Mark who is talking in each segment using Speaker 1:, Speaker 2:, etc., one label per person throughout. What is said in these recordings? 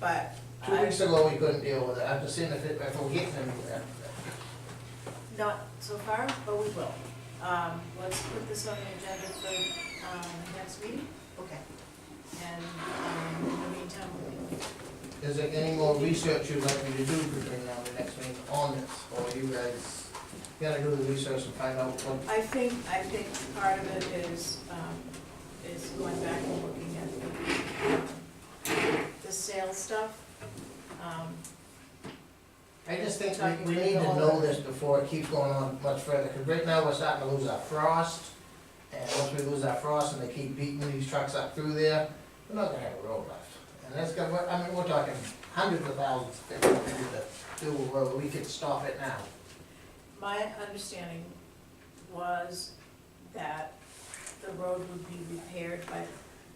Speaker 1: but
Speaker 2: Two
Speaker 1: I'm
Speaker 2: weeks ago, we couldn't deal with it, I'm just seeing if it, if we're getting anywhere.
Speaker 1: not so far, but we will. Um, let's put this on the agenda for, um, next meeting,
Speaker 3: Okay.
Speaker 1: and, um, in the meantime, we can
Speaker 2: Is there any more research you'd like me to do between now and the next meeting on this, or you guys gotta do the research and find out what?
Speaker 1: I think, I think part of it is, um, is going back and looking at um, the, the sales stuff. Um,
Speaker 2: I just think we, we need to know this before it keeps going on much further, cause right now, we're starting to lose our frost. And once we lose our frost and they keep beating these trucks up through there, we're not gonna have a road left. And that's gonna, we're- I mean, we're talking hundreds of thousands of things we need to do, where we could stop it now.
Speaker 1: My understanding was that the road would be repaired by,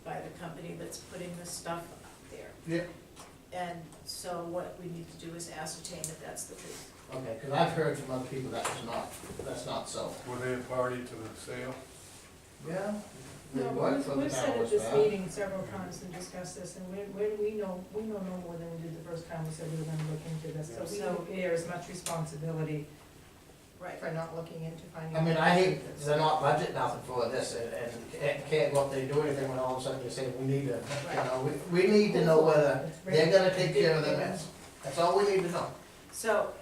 Speaker 1: by the company that's putting the stuff up there.
Speaker 2: Yeah.
Speaker 1: And so what we need to do is ascertain if that's the truth.
Speaker 2: Okay, because I've heard from other people that was not, that's not so.
Speaker 4: Were they a party to the sale?
Speaker 2: Yeah.
Speaker 5: No,
Speaker 2: What,
Speaker 5: we've,
Speaker 2: from the
Speaker 5: we've said
Speaker 2: town
Speaker 5: at
Speaker 2: was
Speaker 5: this
Speaker 2: bad?
Speaker 5: meeting several times and discussed this, and where, where do we know, we know no more than we did the first time we said we were gonna look into this, so we
Speaker 1: Yeah.
Speaker 5: don't bear as much responsibility
Speaker 1: Right.
Speaker 5: for not looking into finding.
Speaker 2: I mean,
Speaker 5: out.
Speaker 2: I hate, they're not budgeting nothing for this and, and can't- can't go up there and do anything when all of a sudden you say, we need to, you know, we, we need to know whether
Speaker 5: It's
Speaker 2: they're
Speaker 5: very-
Speaker 2: gonna take care of the mess. That's all we need to know.
Speaker 1: So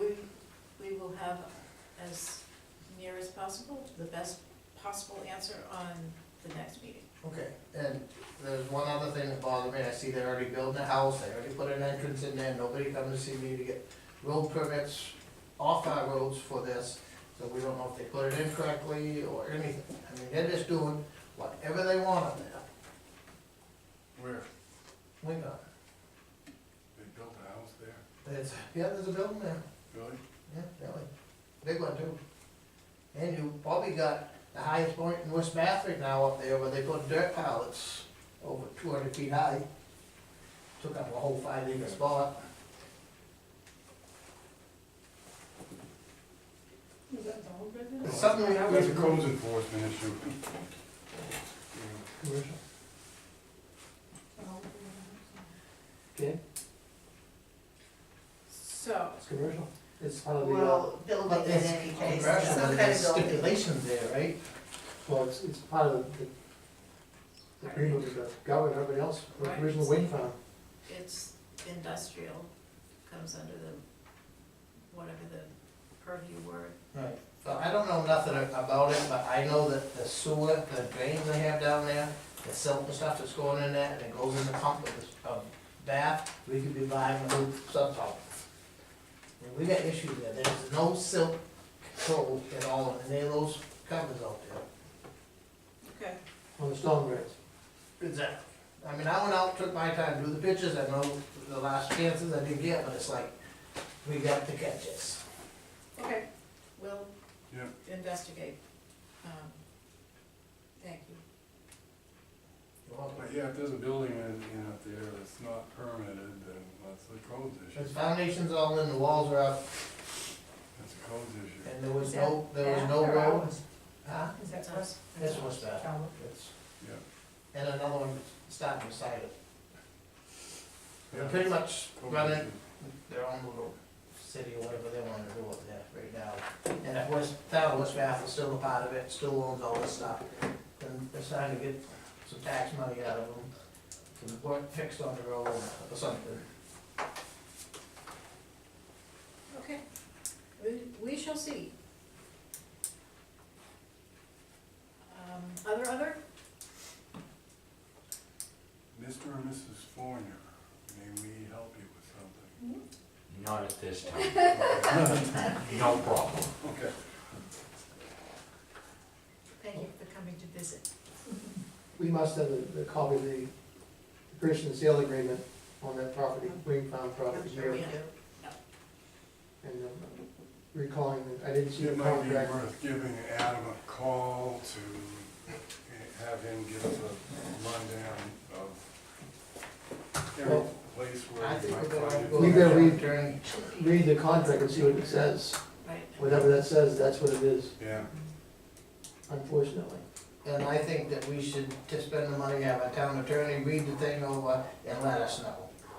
Speaker 1: we, we will have as near as possible, the best possible answer on the next meeting.
Speaker 2: Okay, and there's one other thing that bothered me, I see they're already building a house, they already put an entrance in there, nobody come to see me to get road permits off our roads for this, so we don't know if they put it in correctly or anything. I mean, they're just doing whatever they want up there.
Speaker 4: Where?
Speaker 2: We know,
Speaker 4: They built a house there,
Speaker 2: there's, yeah, there's a building there,
Speaker 4: really?
Speaker 2: yeah, really, big one too. And you probably got the highest point in West Bath right now up there where they put dirt pallets over two hundred feet high. Took up a whole five acre spot.
Speaker 5: Is that all good then?
Speaker 2: It's something we have
Speaker 4: That's a
Speaker 2: to-
Speaker 4: codes enforcement issue.
Speaker 5: Oh,
Speaker 2: Okay,
Speaker 1: So,
Speaker 2: it's commercial. It's probably.
Speaker 3: Well, building
Speaker 2: But
Speaker 3: in
Speaker 2: it's
Speaker 3: any case,
Speaker 2: commercial,
Speaker 3: some
Speaker 2: but
Speaker 3: kind of
Speaker 2: there's
Speaker 3: building.
Speaker 2: stipulations there, right? Well, it's, it's part of the, the agreement with the government, everybody else,
Speaker 1: the Right. original
Speaker 2: wind farm.
Speaker 1: it's industrial, comes under the, whatever the purview word
Speaker 2: Right, so I don't know nothing a- about it, but I know that the sewer, the drains they have down there, the silt and stuff that's going in there, and it goes in the pump with this, um, bath, we could be buying a new sub pump. And we got issues there, there's no silt control at all, and they those covers out there.
Speaker 1: Okay.
Speaker 2: On the stone grids. Exactly. I mean, I went out, took my time, drew the pictures, I know the last chances I did get, but it's like, we got to catch this.
Speaker 1: Okay, we'll
Speaker 4: Yeah.
Speaker 1: investigate. Um, Thank you.
Speaker 2: You're welcome.
Speaker 4: But yeah, if there's a building in, in out there that's not permitted, then that's a codes issue.
Speaker 2: His foundation's all in, the walls are up,
Speaker 4: That's a codes issue.
Speaker 2: and there was no, there was no
Speaker 5: After
Speaker 2: road.
Speaker 5: hours.
Speaker 2: Huh?
Speaker 5: Is that us?
Speaker 2: This was that.
Speaker 5: Tower.
Speaker 2: It's-
Speaker 4: Yeah.
Speaker 2: And another one starting beside it. They're
Speaker 4: Yeah,
Speaker 2: pretty much
Speaker 4: codes
Speaker 2: running
Speaker 4: issue.
Speaker 2: their own little city or whatever they wanna do up there right now. And if West, town of West Bath is still a part of it, still owns all this stuff, then they're starting to get some tax money out of them. Some work fixed on the road or something.
Speaker 1: Okay. We, we shall see. Um, Other, other?
Speaker 4: Mr. and Mrs. Forner, may we help you with something?
Speaker 6: Not at this time. No problem.
Speaker 4: Okay.
Speaker 1: Thank you for coming to visit.
Speaker 2: We must have the, the copy of the purchase and sale agreement on that property, Wing Farm
Speaker 1: I'm sure we do.
Speaker 2: And um, recalling, I didn't
Speaker 4: It might be worth giving Adam a call to have him give us a rundown of every
Speaker 2: Well,
Speaker 4: place
Speaker 2: I
Speaker 4: where we
Speaker 2: think
Speaker 4: might
Speaker 2: we're gonna
Speaker 4: find
Speaker 2: go.
Speaker 4: it.
Speaker 7: We gotta read-
Speaker 2: during.
Speaker 7: read the contract and see what it says.
Speaker 1: Right.
Speaker 7: Whatever that says, that's what it is,
Speaker 4: Yeah,
Speaker 7: unfortunately.
Speaker 2: And I think that we should, to spend the money, have a town attorney read the thing over and let us know.